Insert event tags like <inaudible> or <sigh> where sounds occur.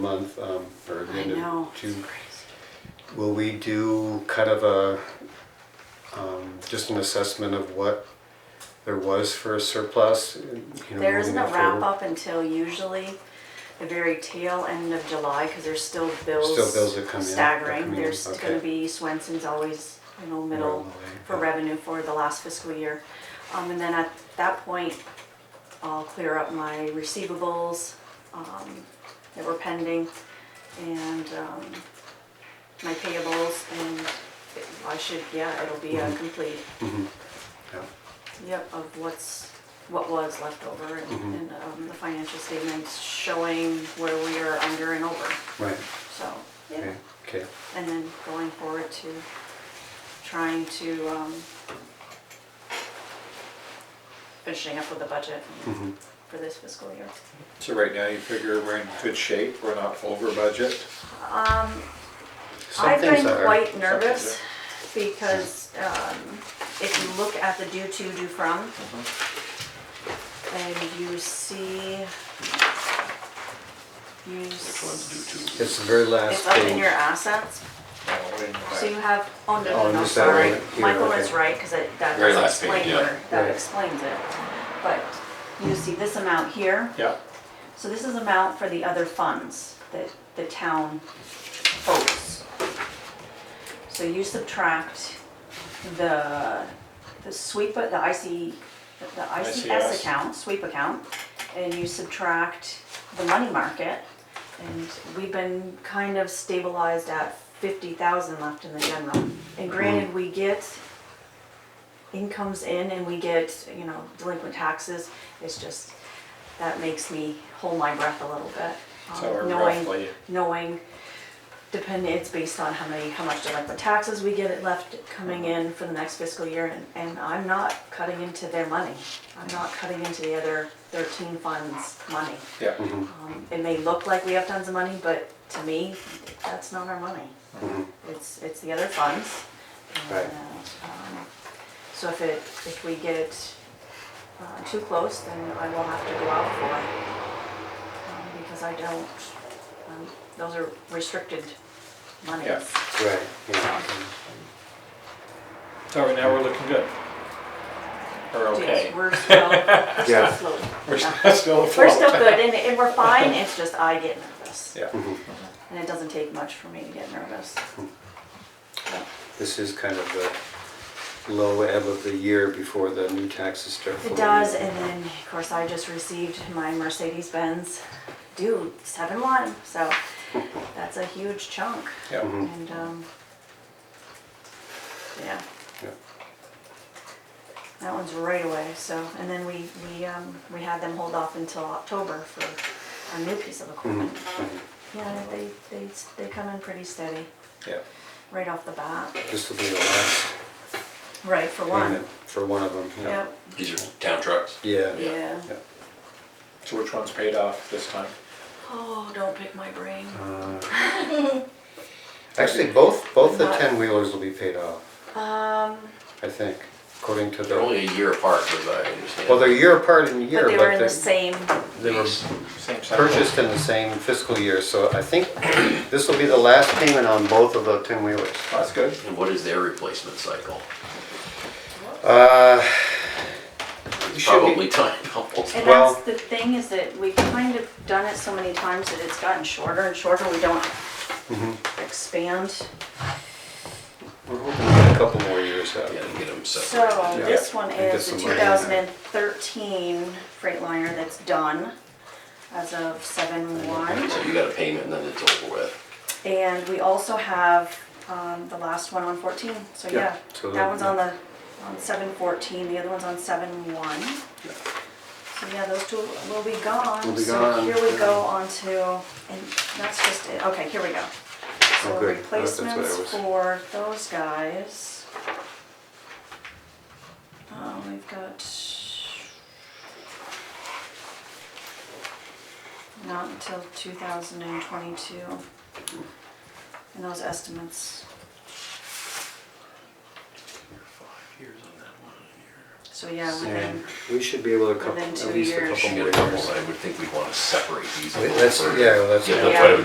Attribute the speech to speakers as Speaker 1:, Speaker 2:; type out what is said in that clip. Speaker 1: month, um, or the
Speaker 2: I
Speaker 1: end
Speaker 2: know.
Speaker 1: of
Speaker 2: it's
Speaker 1: June.
Speaker 2: crazy.
Speaker 1: Will we do kind of a, um, just an assessment of what there was for a surplus? you know,
Speaker 2: There isn't a
Speaker 1: moving forward?
Speaker 2: wrap up until usually the very tail end of July, cause there's still bills.
Speaker 1: Still bills that come in, that come
Speaker 2: Staggering,
Speaker 1: in,
Speaker 2: there's
Speaker 1: okay.
Speaker 2: gonna be, Swenson's always, you know,
Speaker 1: Middle
Speaker 2: middle
Speaker 1: of the way,
Speaker 2: for
Speaker 1: yeah.
Speaker 2: revenue for the last fiscal year. Um, and then at that point, I'll clear up my receivables, um, that were pending and, um, my payables and it- I should, yeah, it'll be
Speaker 1: Mm-hmm.
Speaker 2: a complete,
Speaker 1: Yeah.
Speaker 2: yep, of what's, what was left over and, and, um, the financial statements showing where we are under and over,
Speaker 1: Right,
Speaker 2: so, yeah
Speaker 1: okay, okay,
Speaker 2: and then going forward to trying to, um, finishing up with the budget for this fiscal year.
Speaker 3: So right now, you figure we're in good shape, we're not over budget?
Speaker 1: Some
Speaker 2: I've
Speaker 1: things
Speaker 2: been
Speaker 1: are-
Speaker 2: quite nervous because, um, if you look at the due to, due from,
Speaker 1: Mm-hmm.
Speaker 2: and you see, you, s-
Speaker 1: it's the very last
Speaker 2: it's up in
Speaker 1: thing.
Speaker 2: your assets,
Speaker 3: No, we're in the
Speaker 2: So you
Speaker 3: back.
Speaker 2: have, oh,
Speaker 1: Oh,
Speaker 2: no, no, no,
Speaker 1: is that right?
Speaker 2: sorry,
Speaker 1: Here,
Speaker 2: Michael
Speaker 1: okay.
Speaker 2: is right, because that
Speaker 4: Very
Speaker 2: does
Speaker 4: last page,
Speaker 2: explain
Speaker 4: yeah.
Speaker 2: where, that
Speaker 1: Right.
Speaker 2: explains it. But you see this amount here,
Speaker 3: Yeah,
Speaker 2: so this is amount for the other funds that the town owes. So you subtract the, the sweep, the IC, the ICS
Speaker 3: ICS.
Speaker 2: account, sweep account, and you subtract the money market, and we've been kind of stabilized at fifty thousand left in the general. And granted, we get incomes in and we get, you know, delinquent taxes, it's just, that makes me hold my breath a little bit. um,
Speaker 3: So we're
Speaker 2: knowing-
Speaker 3: roughly-
Speaker 2: Knowing, depending, it's based on how many, how much delinquent taxes we get left coming
Speaker 3: Mm-hmm.
Speaker 2: in for the next fiscal year, and, and I'm not cutting into their money. I'm not cutting into the other thirteen funds' money.
Speaker 3: yeah.
Speaker 2: Um, It may look like we have tons of money, but to me, that's not our money.
Speaker 3: Mm-hmm.
Speaker 2: It's, it's the other funds.
Speaker 1: Right.
Speaker 2: And, um, So if it, if we get uh, too close, then I will have to go out for it. um, Because I don't, um, those are restricted monies.
Speaker 3: Yeah.
Speaker 1: Right, yeah, okay.
Speaker 3: So right now, we're looking good. We're okay.
Speaker 2: Yes, We're still,
Speaker 3: <laughs>
Speaker 2: we're still
Speaker 1: Yeah.
Speaker 2: afloat.
Speaker 3: We're
Speaker 2: Yeah.
Speaker 3: still <laughs> still
Speaker 2: We're still
Speaker 3: afloat.
Speaker 2: good and, and we're fine, it's just I get nervous.
Speaker 3: Yeah,
Speaker 2: And it doesn't take much for me to get nervous.
Speaker 3: Mm-hmm.
Speaker 2: Yeah.
Speaker 1: this is kind of the low ebb of the year before the new taxes start.
Speaker 2: It
Speaker 1: flowing
Speaker 2: does,
Speaker 1: in.
Speaker 2: and then, of course, I just received my Mercedes-Benz due, seven one, so that's a huge chunk.
Speaker 1: Hmm.
Speaker 3: yeah.
Speaker 2: And, um, yeah,
Speaker 1: Yeah.
Speaker 2: that one's right away, so, and then we, we, um, we had them hold off until October for a new piece of
Speaker 1: Hmm.
Speaker 2: equipment. Yeah, they, they, they come in pretty steady,
Speaker 3: Yeah.
Speaker 2: right off the bat,
Speaker 1: This will be the last
Speaker 2: right, for one.
Speaker 1: payment for one of them, yeah.
Speaker 2: Yep,
Speaker 4: These are town trucks.
Speaker 1: Yeah.
Speaker 2: yeah.
Speaker 1: Yeah.
Speaker 3: So which one's paid off this time?
Speaker 2: Oh, don't pick my brain.
Speaker 1: Uh, Actually, both, both the
Speaker 2: Not-
Speaker 1: ten wheelers will be paid off,
Speaker 2: Um,
Speaker 1: I think, according to
Speaker 4: They're
Speaker 1: the,
Speaker 4: only a year apart, as I understand.
Speaker 1: well, they're year apart in year,
Speaker 2: but they were in the
Speaker 1: but they,
Speaker 2: same
Speaker 1: they were
Speaker 4: These-
Speaker 3: Same cycle?
Speaker 1: purchased in the same fiscal year, so I think this will be the last payment on both of the ten wheelers.
Speaker 3: That's good.
Speaker 4: And what is their replacement cycle?
Speaker 1: Uh, you should be-
Speaker 4: Probably time, <laughs> almost.
Speaker 2: And
Speaker 1: Well-
Speaker 2: that's the thing is that we've kind of done it so many times that it's gotten shorter and shorter. We don't
Speaker 1: Mm-hmm.
Speaker 2: expand.
Speaker 1: We're hoping to get a couple more years out.
Speaker 4: Gotta get them separated.
Speaker 2: So
Speaker 1: Yeah.
Speaker 2: this one
Speaker 1: I think
Speaker 2: is the
Speaker 1: that's the line in
Speaker 2: 2013 Freightliner that's done as of 7/1.
Speaker 4: So you got a payment and then it's over with.
Speaker 2: And we also have um, the last one on 14, so
Speaker 1: Yeah,
Speaker 2: yeah.
Speaker 1: so
Speaker 2: That one's
Speaker 1: the-
Speaker 2: on the, on 7/14, the other one's on 7/1. So yeah, those two will be gone.
Speaker 1: Will be
Speaker 2: So
Speaker 1: gone,
Speaker 2: here we go
Speaker 1: yeah.
Speaker 2: on to, and that's just it, okay, here we go.
Speaker 1: Oh,
Speaker 2: So
Speaker 1: good. That's what I
Speaker 2: replacements
Speaker 1: was-
Speaker 2: for those guys. Uh, we've got. Not until two thousand and twenty-two. And those estimates,
Speaker 4: Years on that one,
Speaker 2: so yeah,
Speaker 1: Yeah,
Speaker 2: within,
Speaker 1: we should be able to couple,
Speaker 2: Within
Speaker 1: at
Speaker 2: two
Speaker 1: least a
Speaker 2: years.
Speaker 1: couple
Speaker 4: a
Speaker 1: more
Speaker 4: year. You get a
Speaker 1: years.
Speaker 4: couple, I would think we'd wanna separate these a
Speaker 1: Wait,
Speaker 4: little
Speaker 1: let's-
Speaker 4: further.
Speaker 1: yeah, let's-
Speaker 4: Get them
Speaker 2: Yeah.
Speaker 4: put